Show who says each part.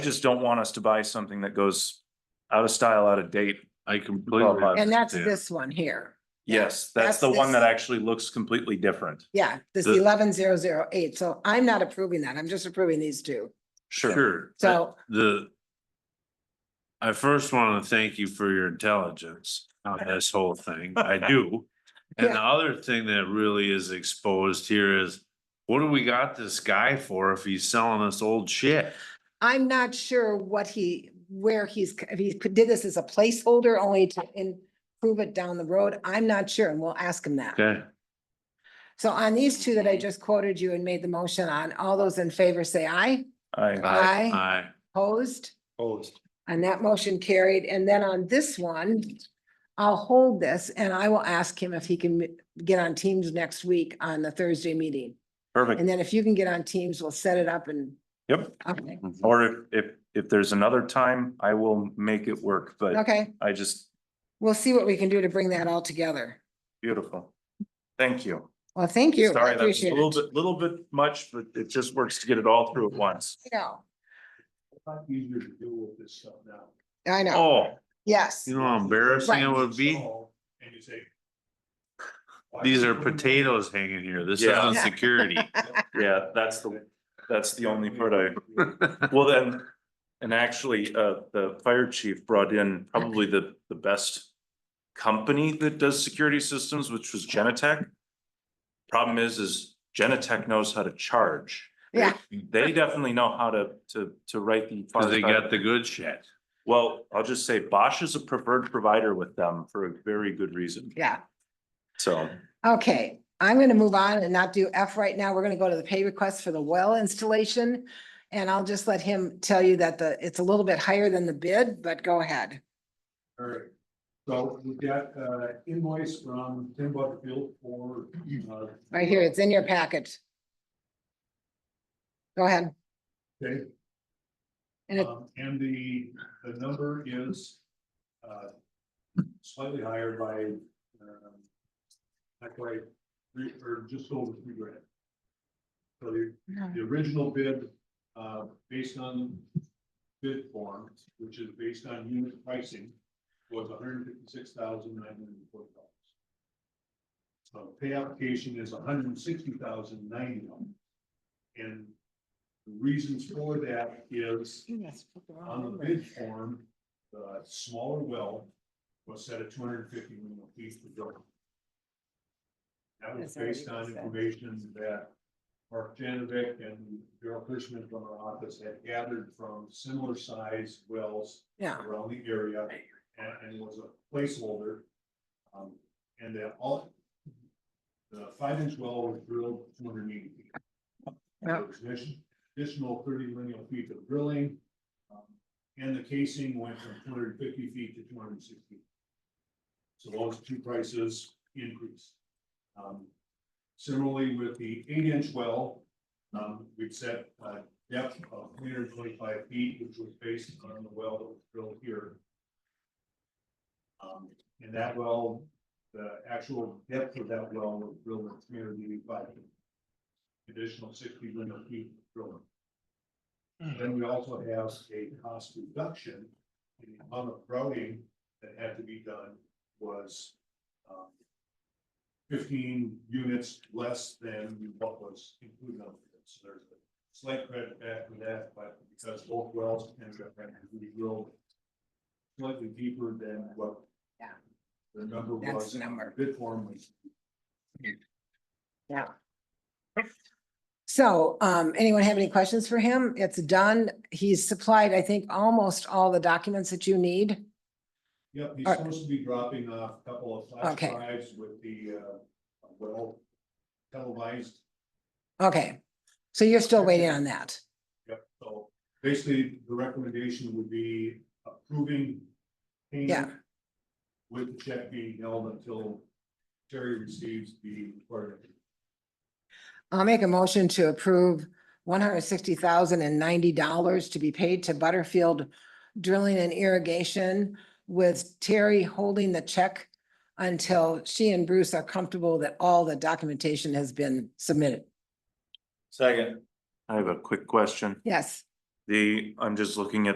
Speaker 1: just don't want us to buy something that goes out of style, out of date.
Speaker 2: I completely.
Speaker 1: Qualified.
Speaker 3: And that's
Speaker 2: understand.
Speaker 3: this one here.
Speaker 1: Yes, that's
Speaker 3: That's
Speaker 1: the one
Speaker 3: this-
Speaker 1: that actually looks completely different.
Speaker 3: Yeah, this
Speaker 2: The-
Speaker 3: eleven zero zero eight. So I'm not approving that. I'm just approving these two.
Speaker 2: Sure. Uh,
Speaker 3: So
Speaker 2: The. I first want to thank you for your intelligence on this whole thing. I do. And the other thing that really is exposed here is, what do we got this guy for if he's selling us old shit?
Speaker 3: I'm not sure what he, where he's, if he could- did this as a placeholder only to improve it down the road. I'm not sure and we'll ask him that.
Speaker 2: Okay,
Speaker 3: So on these two that I just quoted you and made the motion on, all those in favor say aye.
Speaker 1: I,
Speaker 3: Aye.
Speaker 2: I,
Speaker 3: Opposed?
Speaker 4: Opposed.
Speaker 3: And that motion carried. And then on this one, I'll hold this and I will ask him if he can m- get on Teams next week on the Thursday meeting.
Speaker 1: perfect.
Speaker 3: And then if you can get on Teams, we'll set it up and,
Speaker 1: Yep.
Speaker 3: okay,
Speaker 1: Or if, if, if there's another time, I will make it work, but
Speaker 3: okay.
Speaker 1: I just,
Speaker 3: We'll see what we can do to bring that all together.
Speaker 1: beautiful. Thank you.
Speaker 3: Well, thank you. I
Speaker 1: Sorry, that was a
Speaker 3: appreciate
Speaker 1: little
Speaker 3: it.
Speaker 1: bit, little bit much, but it just works to get it all through at once.
Speaker 3: I know,
Speaker 4: Easier to deal with this stuff now.
Speaker 3: I know,
Speaker 2: oh,
Speaker 3: yes.
Speaker 2: you know how embarrassing it would be?
Speaker 4: And you say. why
Speaker 2: These are
Speaker 4: people-
Speaker 2: potatoes hanging here. This
Speaker 1: Yeah.
Speaker 2: isn't security.
Speaker 1: Yeah, that's the, that's the only part I Well, then, and actually, uh, the fire chief brought in probably the, the best company that does security systems, which was Genetech. Problem is, is Genetech knows how to charge.
Speaker 3: Yeah.
Speaker 1: They definitely know how to, to, to write the.
Speaker 2: Cause they got the good shit.
Speaker 1: Well, I'll just say Bosch is a preferred provider with them for a very good reason,
Speaker 3: Yeah,
Speaker 1: so.
Speaker 3: okay. I'm gonna move on and not do F right now. We're gonna go to the pay request for the well installation. And I'll just let him tell you that the, it's a little bit higher than the bid, but go ahead.
Speaker 4: All right. So we've got uh invoice from Tim Butterfield for. uh,
Speaker 3: Right here, it's in your packet. Go ahead.
Speaker 4: Okay,
Speaker 3: And it,
Speaker 4: um, and the, the number is uh slightly higher by um, like by three, or just over three grand. So the
Speaker 3: no,
Speaker 4: the original bid, uh, based on bid form, which is based on unit pricing, was hundred and fifty-six thousand nine hundred and forty dollars. So pay application is hundred and sixty thousand ninety dollars. And the reasons for that is
Speaker 3: yes, put the wrong
Speaker 4: on the
Speaker 3: number.
Speaker 4: bid form, the smaller well was set at two hundred and fifty million feet per building. That was
Speaker 3: That's already
Speaker 4: based on
Speaker 3: been said.
Speaker 4: information that Mark Janovic and Daryl Cushman from our office had gathered from similar sized wells
Speaker 3: Yeah,
Speaker 4: around the area and, and was a placeholder. Um, and that all, the five inch well was drilled two hundred and eighty feet.
Speaker 3: Yeah.
Speaker 4: There was an addition- Additional thirty lineal feet of drilling. um, And the casing went from two hundred and fifty feet to two hundred and sixty. So those two prices increased. Um, Similarly, with the eight inch well, um, we've set uh, depth of three hundred twenty-five feet, which was based on the well that was drilled here. Um, and that well, the actual depth of that well was drilled at three hundred eighty-five. Additional sixty linear feet of drilling. Then we also have a cost reduction, in the amount of routing that had to be done was, um, fifteen units less than what was included on it. So there's a slight credit back for that, but because both wells ended up having to be drilled slightly deeper than what
Speaker 3: Yeah.
Speaker 4: the number was.
Speaker 3: That's the number.
Speaker 4: Bid form was
Speaker 3: so, um, anyone have any questions for him? It's done. He's supplied, I think, almost all the documents that you need.
Speaker 4: Yep, he's
Speaker 3: Alright.
Speaker 4: supposed to be dropping off a couple of flash
Speaker 3: Okay.
Speaker 4: drives with the, uh, well, televised.
Speaker 3: Okay, so you're still waiting on that.
Speaker 4: Yep, so basically, the recommendation would be approving. payment
Speaker 3: Yeah.
Speaker 4: With the check being held until Terry receives the required.
Speaker 3: I'll make a motion to approve one hundred sixty thousand and ninety dollars to be paid to Butterfield Drilling and Irrigation with Terry holding the check until she and Bruce are comfortable that all the documentation has been submitted.
Speaker 1: Second. I have a quick question.
Speaker 3: Yes,
Speaker 1: The, I'm just looking at